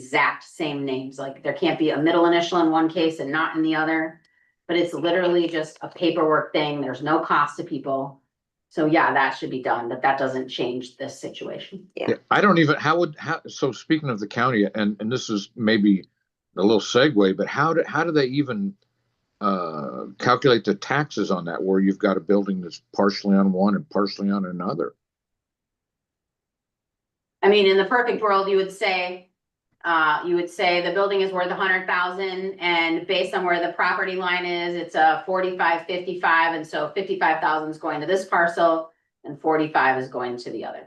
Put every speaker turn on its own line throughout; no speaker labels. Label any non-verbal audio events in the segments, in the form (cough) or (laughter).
exact same names, like there can't be a middle initial in one case and not in the other. But it's literally just a paperwork thing, there's no cost to people. So yeah, that should be done, but that doesn't change this situation.
Yeah, I don't even, how would, how, so speaking of the county, and, and this is maybe a little segue, but how do, how do they even uh, calculate the taxes on that, where you've got a building that's partially on one and partially on another?
I mean, in the perfect world, you would say, uh, you would say the building is worth a hundred thousand and based on where the property line is, it's a forty-five, fifty-five, and so fifty-five thousand is going to this parcel and forty-five is going to the other.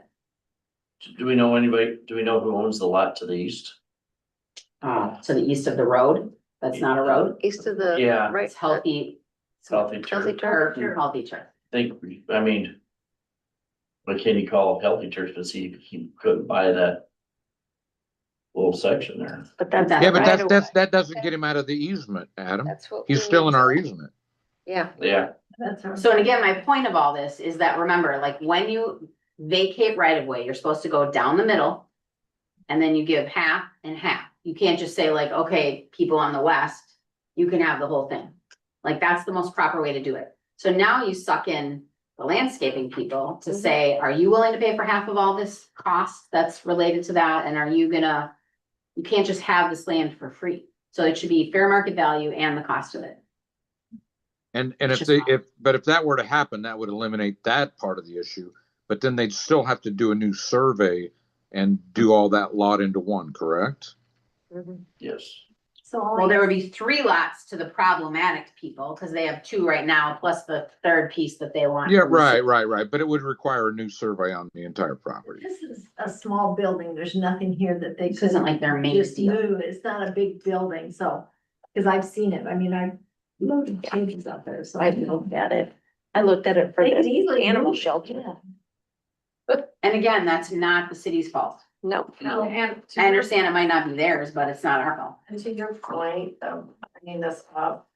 Do we know anybody, do we know who owns the lot to the east?
Uh, to the east of the road, that's not a road,
East of the.
Yeah.
Right.
it's healthy.
Healthy
Healthy
Turf,
Turf,
turf.
Sure.
healthy turf.
think, we- I mean. Why can't he call Healthy Turf to see if he couldn't buy that? Little section there.
But
that's-
that's.
Yeah,
Uh, right
That's
away.
but that- right
Yeah, but that's,
That's what
that's, that doesn't get him out of the easement, Adam.
we
He's still
need.
in our easement.
Yeah.
Yeah,
So and again, my point of all this is that remember, like when you vacate right of way, you're supposed to go down the middle. And then you give half and half. You can't just say like, okay, people on the west, you can have the whole thing. Like that's the most proper way to do it. So now you suck in the landscaping people to
Mhm.
say, are you willing to pay for half of all this cost that's related to that? And are you gonna? You can't just have this land for free. So it should be fair market value and the cost of it.
And, and if
It's
they,
just-
if, but if that were to happen, that would eliminate that part of the issue. But then they'd still have to do a new survey and do all that lot into one, correct?
Mhm.
yes.
So
Well,
all
there
you,
would be three lots to the problematic people, cause they have two right now, plus the third piece that they want.
Yeah, right, right, right. But it would require a new survey on the entire property.
this is a small building, there's nothing here that they
This isn't
could
like their main
just
deal.
move, it's not a big building, so, cause I've seen it, I mean, I loaded cages up there, so I
I
know.
looked at it. I looked at it for
They could
the
easily
animal
move it, yeah.
shelter.
And again, that's not the city's fault.
No.
And.
I understand it might not be theirs, but it's not our fault.
And to your point of bringing this up.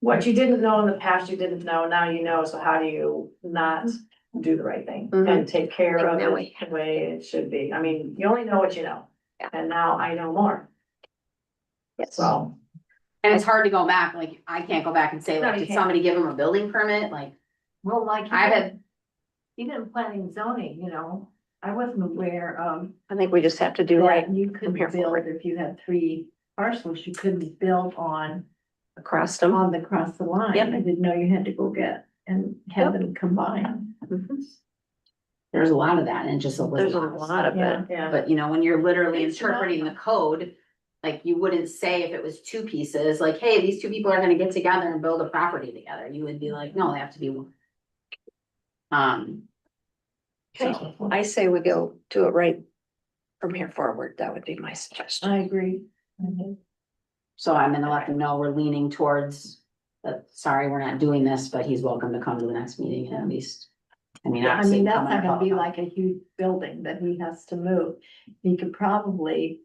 What you didn't know in the past, you didn't know, now you know, so how do you not do the right thing
Mm-hmm.
and
Mhm.
take care
Like,
of
now
it
we-
the way it should be? I mean, you only know what you know.
Yeah.
And now I know more,
Yes.
so.
And it's hard to go back, like, I can't go back and say,
No,
like,
you
did
can't.
somebody give them a building permit? Like,
Well, like.
I had,
Even planning zoning, you know, I wasn't aware of
I think we just have to do right
that you
from
could
here
build,
forward.
if you had three parcels, you couldn't build on
across them.
on the cross the line.
Yep.
I didn't know you had to go get and have them combined.
Mhm.
there's a lot of that and it just.
There's a lot of it.
yeah.
But you know, when you're literally
It's not-
interpreting the code, like you wouldn't say if it was two pieces, like, hey, these two people are gonna get together and build a property together. You would be
Mm-hmm.
like, no, they have to be one. Um,
Okay. I say we go do it right from here forward. That would be my suggestion.
I agree.
so I'm gonna let them know we're leaning towards, that, sorry, we're not doing this, but he's welcome to come to the next meeting and at least. I mean,
I
obviously.
mean, that's
come on
not
a
gonna be
call.
like a huge building that he has to move. He could probably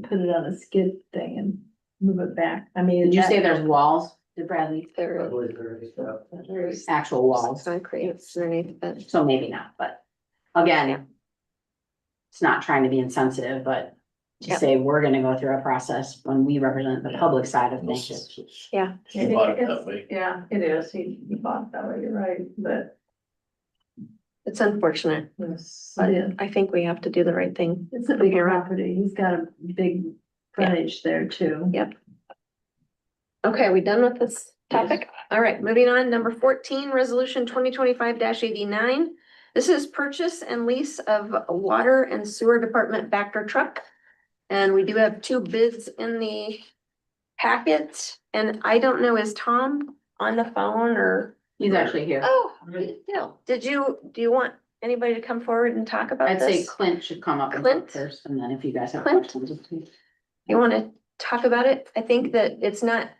put it on a skid thing and move it back. I mean.
Did you
that-
say there's walls, did Bradley,
There is
There is-
actual walls?
concrete underneath it.
So maybe not, but again. It's not trying to be insensitive, but to
Yeah.
say we're gonna go through a process when we represent the
Yeah.
public side of
No
things.
sense.
Yeah.
He bought it that way.
Yeah, it is. He he bought it that way, you're right, but.
It's unfortunate,
Yes.
but I think we have to do the right thing.
It's a big property. He's got a big frontage there too.
Okay, we done with this topic? All right, moving on, number fourteen, resolution twenty twenty-five eighty-nine. This is purchase and lease of a water and sewer department backer truck. And we do have two bids in the packet, and I don't know, is Tom on the phone or?
He's actually here.
Oh, no. Did you, do you want anybody to come forward and talk about
I'd say
this?
Clint should come up and
Clint?
talk first, and then if you guys have
Clint?
questions. please.
You wanna talk about it? I think that it's not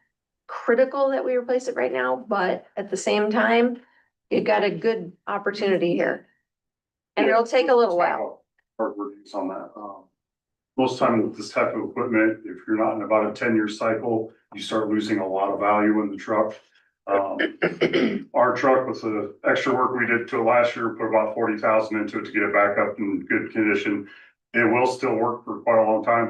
critical that we replace it right now, but at the same time, you got a good opportunity here. And it'll take a little while.
Hard reviews on that. Um, Most time with this type of equipment, if you're not in about a ten-year cycle, you start losing a lot of value in the truck. Um,
(clears throat)
Our truck with the extra work we did to it last year, put about forty thousand into it to get it back up in good condition. It will still work for quite a long time, but